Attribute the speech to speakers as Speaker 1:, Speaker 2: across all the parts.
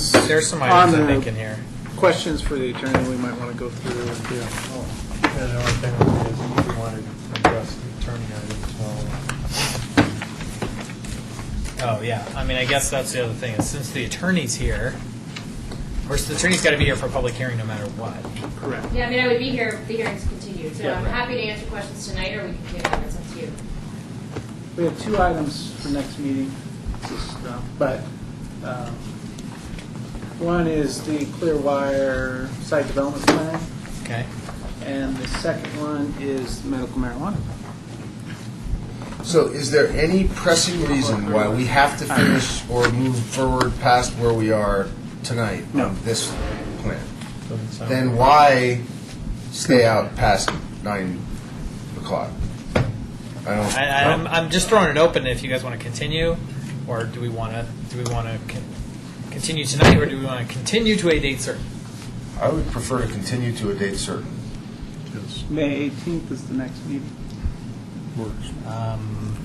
Speaker 1: There's some items I
Speaker 2: On the-
Speaker 1: think in here.
Speaker 2: Questions for the attorney we might want to go through and do. Oh,
Speaker 3: And the only thing would be is if you wanted to address the attorney items, well,
Speaker 1: Oh, yeah. I mean, I guess that's the other thing, is since the attorney's here, of course, the attorney's got to be here for a public hearing no matter what.
Speaker 2: Correct.
Speaker 4: Yeah, I mean, I would be here if the hearing's continued, so
Speaker 1: Yeah,
Speaker 4: I'm
Speaker 1: right.
Speaker 4: happy to answer questions tonight, or we can table it, it's up to you.
Speaker 2: We have two items for next meeting, just, uh, but um, one is the Clearwire site development plan,
Speaker 1: Okay?
Speaker 2: and the second one is medical marijuana.
Speaker 5: So is there any pressing reason why we have to finish or move forward past where we are tonight
Speaker 2: No.
Speaker 5: on this plan?
Speaker 3: doesn't sound.
Speaker 5: Then why stay out past nine o'clock? I don't.
Speaker 1: I, I'm, I'm just throwing it open if you guys want to continue, or do we want to, do we want to continue tonight, or do we want to continue to a date certain?
Speaker 5: I would prefer to continue to a date certain.
Speaker 2: May 18th is the next meeting.
Speaker 1: Um,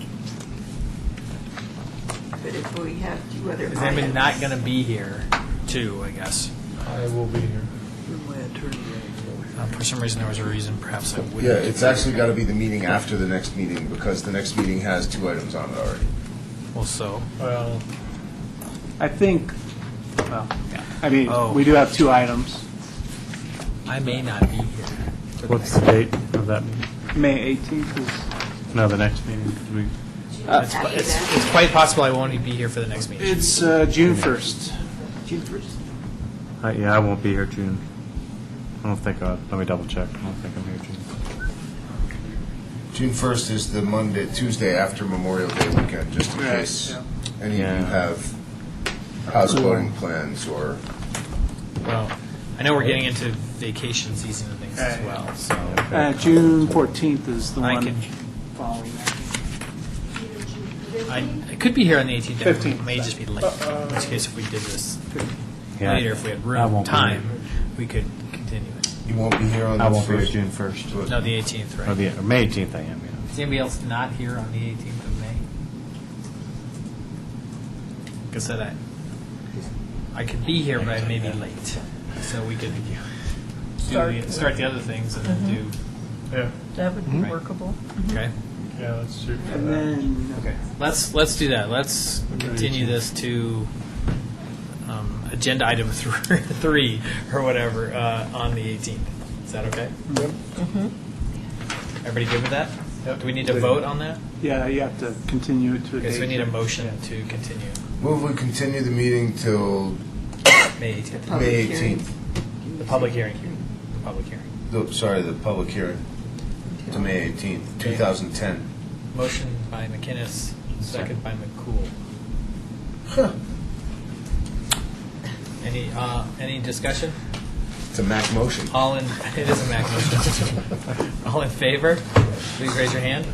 Speaker 6: But if we have two other
Speaker 1: Is
Speaker 6: items.
Speaker 1: anybody not going to be here, too, I guess?
Speaker 3: I will be here.
Speaker 1: Um, For some reason, there was a reason perhaps I wouldn't.
Speaker 5: Yeah, it's actually got to be the meeting after the next meeting because the next meeting has two items on it already.
Speaker 1: Well, so,
Speaker 3: Well,
Speaker 2: I think, well,
Speaker 1: Yeah.
Speaker 2: I mean,
Speaker 1: Oh.
Speaker 2: we do have two items,
Speaker 1: I may not be here.
Speaker 7: What's the date of that, meeting?
Speaker 2: May 18th is,
Speaker 7: no, the next meeting? Do we-
Speaker 1: It's it's- it's quite possible I won't be here for the next meeting.
Speaker 2: it's uh, June 1st.
Speaker 6: June first.
Speaker 7: I- Uh, Yeah, I won't be here June. I don't think, I- let me double check. I don't think I'm here June.
Speaker 5: June first is the Monday, Tuesday after Memorial Day weekend, just in
Speaker 2: Right,
Speaker 5: case
Speaker 2: yeah.
Speaker 5: any of you
Speaker 7: Yeah.
Speaker 5: have house voting plans or.
Speaker 1: Well, I know we're getting into vacation season and things as
Speaker 2: Right.
Speaker 1: well, so.
Speaker 2: Uh, June 14th is the
Speaker 1: I
Speaker 2: one
Speaker 1: can-
Speaker 2: following that.
Speaker 1: I, I could be here on the 18th. It
Speaker 2: Fifteenth.
Speaker 1: may just be late, in which case if we did this
Speaker 7: Yeah.
Speaker 1: later, if we had
Speaker 7: I
Speaker 1: room,
Speaker 7: won't be
Speaker 1: time, we could continue it.
Speaker 5: You won't be here on
Speaker 7: here.
Speaker 5: the
Speaker 7: I
Speaker 5: first.
Speaker 7: won't be here June 1st.
Speaker 1: No, the 18th,
Speaker 7: Or
Speaker 1: right?
Speaker 7: the, or May 18th I am, yeah.
Speaker 1: Is anybody else not here on the 18th of May? Like I said, I, I could be here, but I may be late, so we could do the- start the other things and then
Speaker 3: yeah,
Speaker 6: That would
Speaker 1: be Right.
Speaker 6: workable.
Speaker 1: do, okay?
Speaker 3: yeah, let's shoot for
Speaker 2: And
Speaker 3: that.
Speaker 2: then, okay.
Speaker 1: Let's, let's do that. Let's continue this to um, agenda item th- three or whatever uh, on the 18th. Is that okay? Yep. Everybody good with that?
Speaker 3: Yep.
Speaker 1: Do we need to vote on that?
Speaker 2: Yeah, you have to continue it to a date.
Speaker 1: Okay, so we need a motion to continue
Speaker 5: Move we continue the meeting till
Speaker 1: May 18th,
Speaker 6: Public
Speaker 5: May
Speaker 6: hearing.
Speaker 5: eighteenth.
Speaker 1: the public hearing. The public hearing.
Speaker 5: Sorry, the public hearing, to May eighteenth, two thousand ten.
Speaker 1: Motion by McInnes, second by McCool. Any, uh, any discussion?
Speaker 5: It's a Mac motion.
Speaker 1: All in, it is a Mac motion. All in favor, please raise your hand.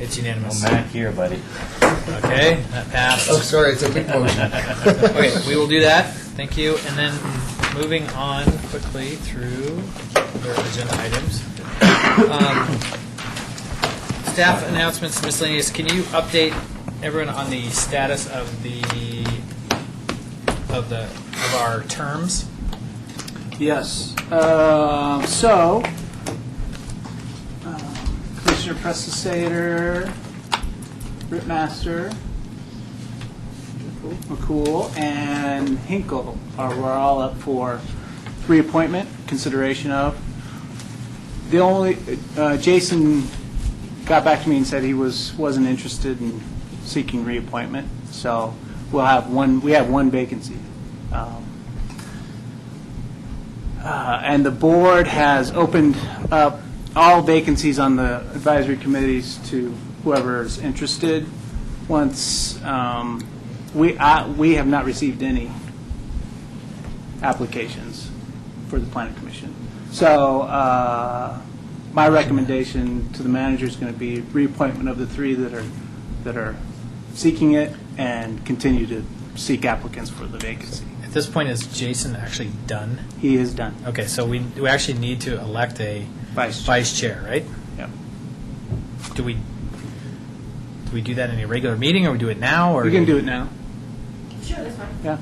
Speaker 1: It's unanimous.
Speaker 7: here, buddy.
Speaker 1: Okay, that
Speaker 5: Oh,
Speaker 1: passed.
Speaker 5: sorry, it's a big motion.
Speaker 1: Okay, we will do that. Thank you. And then moving on quickly through their agenda items. Um, Staff announcements miscellaneous. Can you update everyone on the status of the, of the, of our terms?
Speaker 2: Yes. Uh, So, um, Commissioner Prestisator, Ripmaster, McCool, and Hinkle are, we're all up for reappointment, consideration of. The only, uh, Jason got back to me and said he was, wasn't interested in seeking reappointment, so we'll have one, we have one vacancy. Um, uh, And the board has opened up all vacancies on the advisory committees to whoever's interested. Once, um, we, I- we have not received any applications for the planning commission. So uh, my recommendation to the manager is going to be reappointment of the three that are, that are seeking it and continue to seek applicants for the vacancy.
Speaker 1: At this point, is Jason actually done?
Speaker 2: He is done.
Speaker 1: Okay, so we, we actually need to elect a
Speaker 2: Vice chair.
Speaker 1: vice chair, right?
Speaker 2: Yep.
Speaker 1: Do we, do we do that in a regular meeting, or we do it now, or?
Speaker 2: You can do it now.
Speaker 4: Sure, that's fine.
Speaker 2: Yeah,